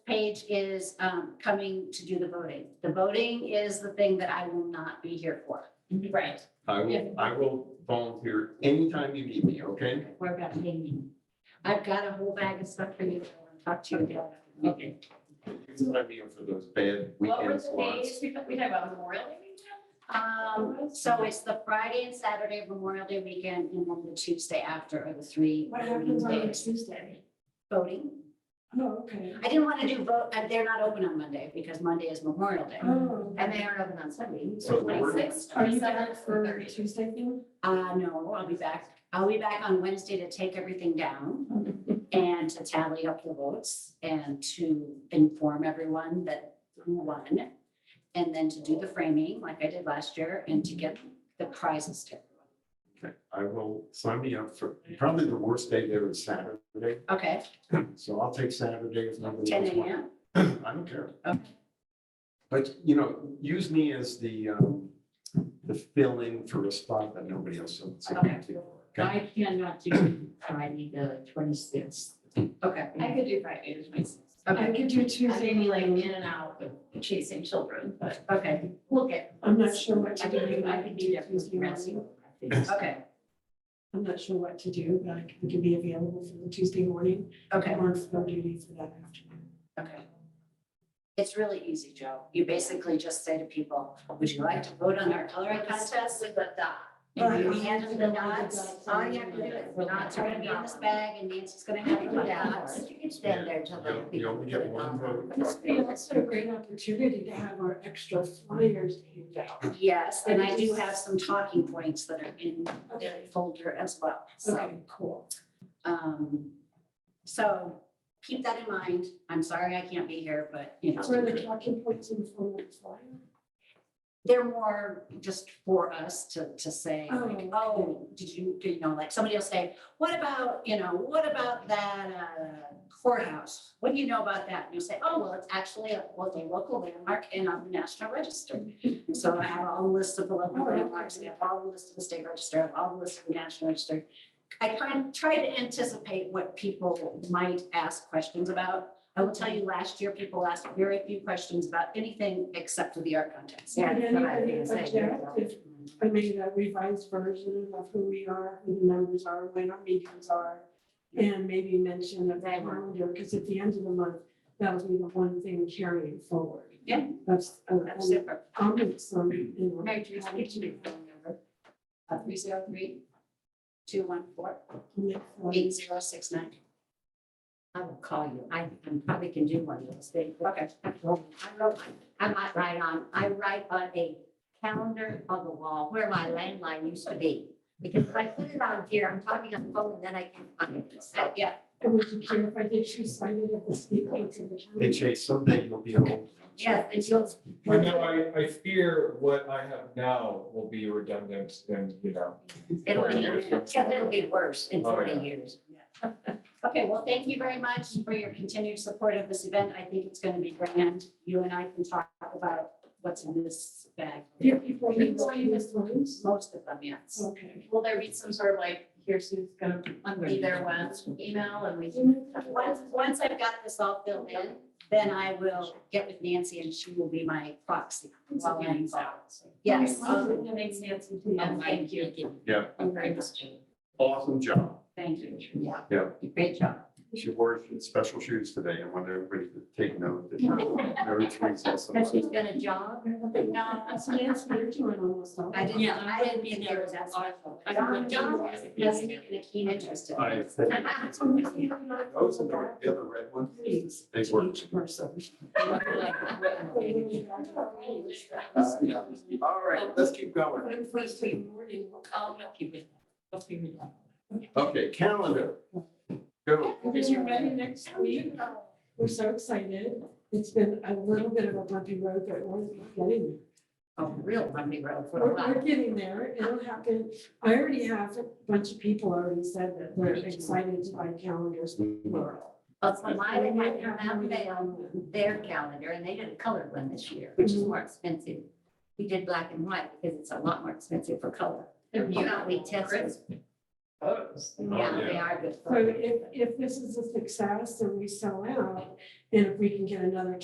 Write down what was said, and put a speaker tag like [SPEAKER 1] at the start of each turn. [SPEAKER 1] page is um, coming to do the voting. The voting is the thing that I will not be here for.
[SPEAKER 2] Right.
[SPEAKER 3] I
[SPEAKER 2] Yeah.
[SPEAKER 3] will, I will volunteer anytime you need me, okay?
[SPEAKER 1] We're about meeting. I've got a whole bag of stuff for you. that I want to Talk to you about.
[SPEAKER 3] Okay. It's not me for those bad
[SPEAKER 2] What were the
[SPEAKER 3] weekend slots.
[SPEAKER 2] days we talked, we talked about Memorial Day weekend?
[SPEAKER 1] Um, so it's the Friday and Saturday of Memorial Day weekend and then the Tuesday after are the three.
[SPEAKER 4] What happens on
[SPEAKER 1] days.
[SPEAKER 4] Tuesday?
[SPEAKER 1] Voting.
[SPEAKER 4] Oh, okay.
[SPEAKER 1] I didn't want to do vote, uh, they're not open on Monday because Monday is Memorial Day.
[SPEAKER 4] Oh,
[SPEAKER 2] And they aren't open on Sunday.
[SPEAKER 3] So the word-
[SPEAKER 2] Twenty-six,
[SPEAKER 4] are you
[SPEAKER 2] twenty-seven,
[SPEAKER 4] back for
[SPEAKER 2] thirty.
[SPEAKER 4] Tuesday thing?
[SPEAKER 1] Uh, no, I'll be back. I'll be back on Wednesday to take everything down and to tally up the votes and to inform everyone that who won. And then to do the framing like I did last year and to get the prizes to everyone.
[SPEAKER 3] Okay, I will sign me up for, probably the worst day there is Saturday,
[SPEAKER 1] Okay,
[SPEAKER 3] so I'll take Saturday if nobody
[SPEAKER 1] ten
[SPEAKER 3] else wants.
[SPEAKER 1] AM.
[SPEAKER 3] I don't care. But, you know, use me as the, um, the fill-in for a spot that nobody else wants. to
[SPEAKER 1] Okay.
[SPEAKER 3] fill, okay?
[SPEAKER 5] I cannot do Friday the twenty-sixth.
[SPEAKER 1] Okay,
[SPEAKER 2] I could do Friday, the twenty-sixth.
[SPEAKER 4] I
[SPEAKER 1] okay,
[SPEAKER 4] could do
[SPEAKER 2] I'm
[SPEAKER 4] Tuesday,
[SPEAKER 2] maybe like in and out with chasing children, but
[SPEAKER 1] okay,
[SPEAKER 2] we'll get.
[SPEAKER 4] I'm not sure what to
[SPEAKER 2] I can
[SPEAKER 4] do.
[SPEAKER 2] do, I can do that.
[SPEAKER 4] Tuesday morning.
[SPEAKER 1] okay,
[SPEAKER 4] I'm not sure what to do, but I can- can be available for the Tuesday morning.
[SPEAKER 1] okay,
[SPEAKER 4] Or for duty for that afternoon.
[SPEAKER 1] okay. It's really easy, Joe. You basically just say to people, would you like to vote on our coloring contest?
[SPEAKER 2] with the dot.
[SPEAKER 1] And
[SPEAKER 4] Right.
[SPEAKER 1] we hand them the dots, all you have to do is, the dots are gonna be in this bag, and Nancy's gonna have the dots.
[SPEAKER 5] You can
[SPEAKER 3] stand
[SPEAKER 5] there
[SPEAKER 3] You you only get one vote.
[SPEAKER 4] Yeah, that's a great opportunity to have our extra flyers handed out.
[SPEAKER 1] Yes, and I do have some talking points that are in the
[SPEAKER 4] Okay,
[SPEAKER 1] folder as well, so,
[SPEAKER 4] okay, cool.
[SPEAKER 1] um, so keep that in mind. I'm sorry I can't be here, but, you know,
[SPEAKER 4] Where the talking points in the form of a flyer?
[SPEAKER 1] they're more just for us to, to say, like,
[SPEAKER 4] Oh.
[SPEAKER 1] oh, did you, do you know, like, somebody will say, what about, you know, what about that uh, courthouse? What do you know about that? And you'll say, oh, well, it's actually a, well, a local landmark and on the national register. So I have all the lists of the local
[SPEAKER 4] Oh, okay.
[SPEAKER 1] landmarks, I have all the lists of the state register, I have all the lists of the national register. I try, try to anticipate what people might ask questions about. I will tell you, last year, people asked very few questions about anything except for the art contest.
[SPEAKER 5] Yeah, that's what I was gonna say.
[SPEAKER 4] Objective. I made a revised version of who we are, who the members are, when our meetings are. And maybe mention a calendar, because at the end of the month, that will be the one thing carrying forward.
[SPEAKER 1] Yeah.
[SPEAKER 4] That's, uh,
[SPEAKER 1] That's super.
[SPEAKER 4] I'll make some, you know,
[SPEAKER 2] Mary Teresa, what's your phone number?
[SPEAKER 1] uh,
[SPEAKER 2] Three zero three.
[SPEAKER 1] Two one four
[SPEAKER 4] make some-
[SPEAKER 1] eight zero six nine.
[SPEAKER 5] I will call you. I, I probably can do one of those things.
[SPEAKER 1] Okay.
[SPEAKER 5] I wrote, I'm not right on, I write on a calendar on the wall where my landline used to be. Because if I put it on here, I'm talking on the phone and then I can't find it. So,
[SPEAKER 1] Yeah,
[SPEAKER 4] And would you care if I did two sided at the state points of the
[SPEAKER 3] Hey,
[SPEAKER 4] county?
[SPEAKER 3] Chase, someday you'll be home.
[SPEAKER 5] yes, and you'll.
[SPEAKER 6] I know, I, I fear what I have now will be redundant and, you know.
[SPEAKER 5] It'll be, yeah, it'll be worse in
[SPEAKER 6] Oh,
[SPEAKER 5] forty
[SPEAKER 6] yeah.
[SPEAKER 5] years.
[SPEAKER 1] okay, well, thank you very much for your continued support of this event. I think it's gonna be grand. You and I can talk about what's in this bag.
[SPEAKER 4] Do people need to see these lines?
[SPEAKER 1] Most of them, yes.
[SPEAKER 4] Okay.
[SPEAKER 2] Will there be some sort of like, here's who's gonna be there when email and we can.
[SPEAKER 1] Once, once I've got this all filled in, then I will get with Nancy and she will be my proxy. while I'm involved. Yes, um,
[SPEAKER 2] Thanks, Nancy. And thank you.
[SPEAKER 3] Yeah.
[SPEAKER 2] I'm very much.
[SPEAKER 3] Awesome job.
[SPEAKER 1] thank you.
[SPEAKER 5] Yeah.
[SPEAKER 3] Yeah.
[SPEAKER 5] Great job.
[SPEAKER 3] She wore special shoes today. I want everybody to take note that Mary Teresa has
[SPEAKER 5] Because
[SPEAKER 3] some.
[SPEAKER 5] she's gonna jog.
[SPEAKER 1] No,
[SPEAKER 4] So yes, we're doing almost all.
[SPEAKER 1] I didn't, I didn't think there was that sort of. Don, Don has taken a keen interest in.
[SPEAKER 3] I-
[SPEAKER 1] this.
[SPEAKER 3] Those and the the other red ones, they work.
[SPEAKER 4] Each person.
[SPEAKER 3] Uh, yeah. All right, let's keep going. Okay, calendar. Go.
[SPEAKER 4] Because you're ready next week. We're so excited. It's been a little bit of a bumpy road, but we're getting
[SPEAKER 5] A real Monday road
[SPEAKER 4] there.
[SPEAKER 5] for a
[SPEAKER 4] We're,
[SPEAKER 5] while.
[SPEAKER 4] we're getting there. It'll happen. I already have a bunch of people already said that they're excited to buy calendars plural.
[SPEAKER 5] But from my, they had their on their calendar and they did a colored one this year, which is more expensive. We did black and white because it's a lot more expensive for color. You know, we tested.
[SPEAKER 7] photos.
[SPEAKER 4] Oh,
[SPEAKER 1] Yeah, they are good.
[SPEAKER 4] So if, if this is a success and we sell out, and if we can get another